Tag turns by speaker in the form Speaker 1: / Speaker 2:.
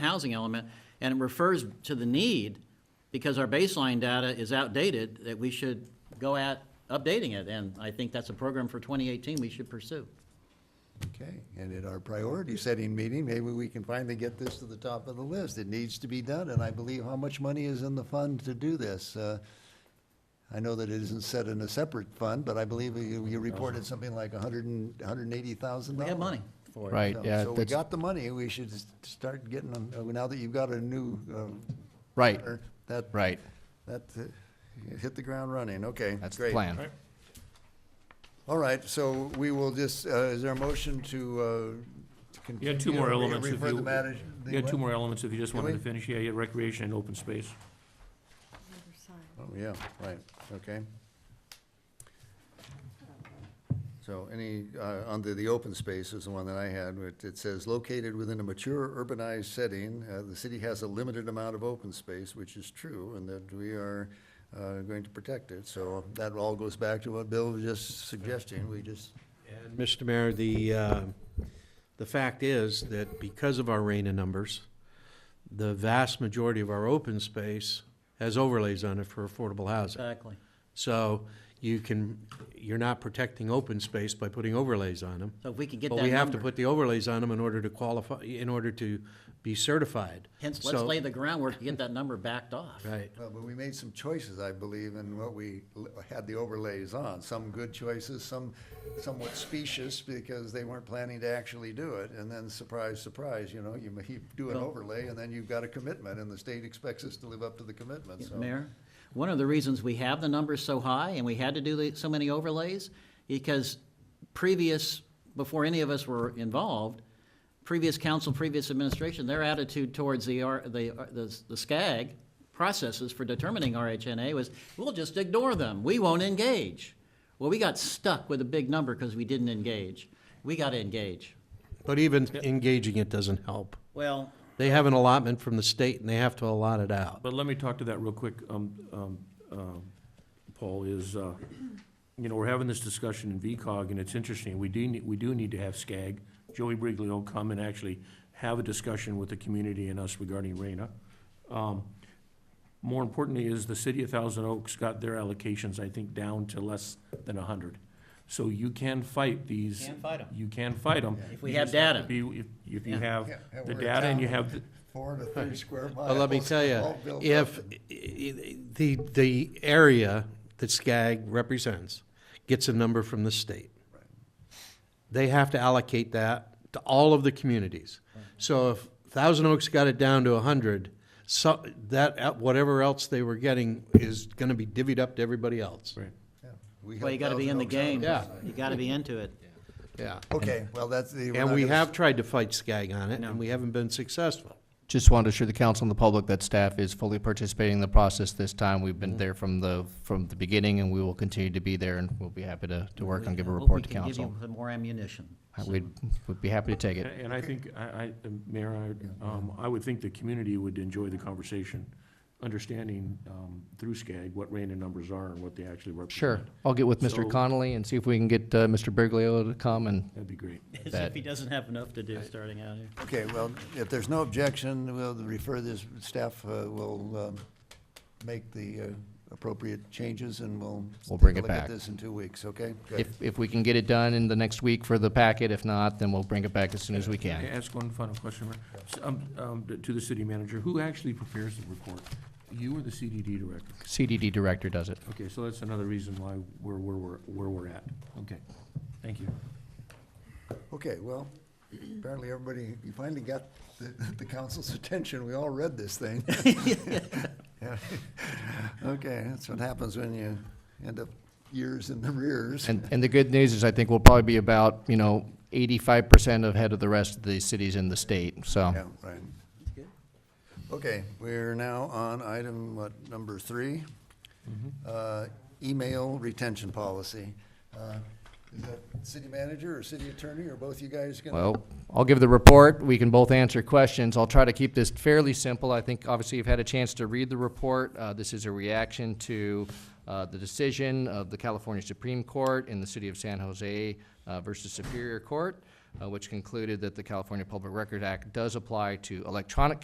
Speaker 1: housing element, and it refers to the need, because our baseline data is outdated, that we should go at updating it, and I think that's a program for 2018 we should pursue.
Speaker 2: Okay, and at our priority-setting meeting, maybe we can finally get this to the top of the list. It needs to be done, and I believe how much money is in the fund to do this? Uh, I know that it isn't set in a separate fund, but I believe you, you reported something like a hundred and, hundred and eighty thousand
Speaker 1: We
Speaker 2: dollars.
Speaker 1: have money for it.
Speaker 3: Right,
Speaker 2: So-
Speaker 3: yeah,
Speaker 2: So we
Speaker 3: that's-
Speaker 2: got the money, we should s- start getting them, uh, now that you've got a new, um.
Speaker 3: Right.
Speaker 2: partner, That.
Speaker 3: Right.
Speaker 2: That, uh, hit the ground running, okay.
Speaker 3: That's the
Speaker 2: great.
Speaker 3: plan.
Speaker 2: All right, so we will just, uh, is there a motion to, uh? to
Speaker 4: You had two
Speaker 2: continue
Speaker 4: more
Speaker 2: or re-
Speaker 4: elements if
Speaker 2: Refer the
Speaker 4: you-
Speaker 2: matter? the
Speaker 4: You had two
Speaker 2: what?
Speaker 4: more elements if you just
Speaker 2: Can
Speaker 4: wanted to
Speaker 2: we?
Speaker 4: finish, yeah, yeah, recreation and open space.
Speaker 2: Oh, yeah, right, okay. So any, uh, under the open space is the one that I had, it, it says located within a mature urbanized setting, uh, the city has a limited amount of open space, which is true, and that we are, uh, going to protect it, so that all goes back to what Bill was just suggesting, we just,
Speaker 5: And Mr. Mayor, the, uh, the fact is that because of our RENA numbers, the vast majority of our open space has overlays on it for affordable housing.
Speaker 1: Exactly.
Speaker 5: So you can, you're not protecting open space by putting overlays on them.
Speaker 1: So if we could get that
Speaker 5: But we have to
Speaker 1: number,
Speaker 5: put the overlays on them in order to qualify, in order to be certified.
Speaker 1: hence, let's
Speaker 5: So-
Speaker 1: lay the groundwork to get that number backed off.
Speaker 5: Right.
Speaker 2: well, but we made some choices, I believe, in what we l- had the overlays on, some good choices, some somewhat specious, because they weren't planning to actually do it, and then surprise, surprise, you know, you, ma- you do an overlay, and then you've got a commitment, and the state expects us to live up to the commitment, so.
Speaker 1: Mayor, one of the reasons we have the numbers so high and we had to do the- so many overlays, because previous, before any of us were involved, previous council, previous administration, their attitude towards the, R- the, uh, the the SCAG processes for determining RHNA was, we'll just ignore them, we won't engage. Well, we got stuck with a big number because we didn't engage. We got to engage.
Speaker 5: But even engaging it doesn't help.
Speaker 1: Well,
Speaker 5: They have an allotment from the state and they have to allot it out.
Speaker 4: But let me talk to that real quick, um, um, um, Paul, is, uh, you know, we're having this discussion in VCOG, and it's interesting, we do, need- we do need to have SCAG. Joey Brigley will come and actually have a discussion with the community and us regarding RENA. Um, More importantly is the city of Thousand Oaks got their allocations, I think, down to less than a hundred. So you can fight these.
Speaker 1: Can fight 'em.
Speaker 4: You can fight them.
Speaker 1: If we have data.
Speaker 4: If, if you have
Speaker 2: Yeah, yeah,
Speaker 4: the
Speaker 2: we're
Speaker 4: data and you
Speaker 2: down.
Speaker 4: have, the-
Speaker 2: Four to three square miles.
Speaker 5: But let me tell
Speaker 2: all
Speaker 5: you,
Speaker 2: built
Speaker 5: if
Speaker 2: up.
Speaker 5: i- i- the, the area that Skag represents gets a number from the state, they have to allocate that to all of the communities. So if Thousand Oaks got it down to a hundred, so, that, uh, whatever else they were getting is gonna be divvied up to everybody else.
Speaker 4: right.
Speaker 2: Yeah, we
Speaker 1: well, you
Speaker 2: have
Speaker 1: got to be in the
Speaker 2: Thousand
Speaker 1: game.
Speaker 2: Oaks
Speaker 5: Yeah.
Speaker 1: You got to be into it.
Speaker 5: Yeah.
Speaker 2: out. Okay, well, that's the. we're
Speaker 5: And
Speaker 2: not
Speaker 5: we
Speaker 2: gonna
Speaker 5: have tried to fight Skag on it,
Speaker 1: No.
Speaker 5: and we haven't been successful.
Speaker 3: Just wanted to assure the council and the public that staff is fully participating in the process this time. We've been there from the, from the beginning, and we will continue to be there, and we'll be happy to, to work on, give a
Speaker 1: I hope
Speaker 3: report to
Speaker 1: we can give
Speaker 3: council.
Speaker 1: you some more ammunition.
Speaker 3: Uh, We'd, we'd be happy to take it.
Speaker 4: And and I think, I, I, Mayor, I, um, I would think the community would enjoy the conversation, understanding, um, through SCAG what random numbers are and what they actually represent.
Speaker 3: Sure, I'll get with Mr.
Speaker 4: So-
Speaker 3: Connolly and see if we can get, uh, Mr. Briglio to come and,
Speaker 4: That'd be great.
Speaker 1: As if
Speaker 3: That-
Speaker 1: he doesn't have enough to do starting out here.
Speaker 2: Okay, well, if there's no objection, we'll refer this, staff uh, will um, make the uh, appropriate changes, and we'll.
Speaker 3: We'll bring
Speaker 2: take a
Speaker 3: it
Speaker 2: Look at
Speaker 3: back.
Speaker 2: this in two weeks, okay? Good.
Speaker 3: if, if we can get it done in the next week for the packet, if not, then we'll bring it back as soon as we
Speaker 4: Can I
Speaker 3: can.
Speaker 4: ask one final question, Mayor? S- Um, um, to the city manager, who actually prepares the report? You or the CDD director?
Speaker 3: CDD director does it.
Speaker 4: Okay, so that's another reason why we're, where we're, where we're at. Okay, thank you.
Speaker 2: Okay, well, apparently everybody, you finally got the, the council's attention, we all read this thing. Yeah. Okay, that's what happens when you end up years in the rears.
Speaker 3: And, and the good news is I think we'll probably be about, you know, eighty-five percent ahead of the rest of the cities in the state, so.
Speaker 2: Yeah, right. Okay, we're now on item, what, number three? Uh, Email retention policy. Uh, Is that city manager or city attorney, or both you guys gonna?
Speaker 3: Well, I'll give the report. We can both answer questions. I'll try to keep this fairly simple. I think obviously you've had a chance to read the report. Uh, this is a reaction to, uh, the decision of the California Supreme Court in the city of San Jose, uh, versus Superior Court, uh, which concluded that the California Public Record Act does apply to electronic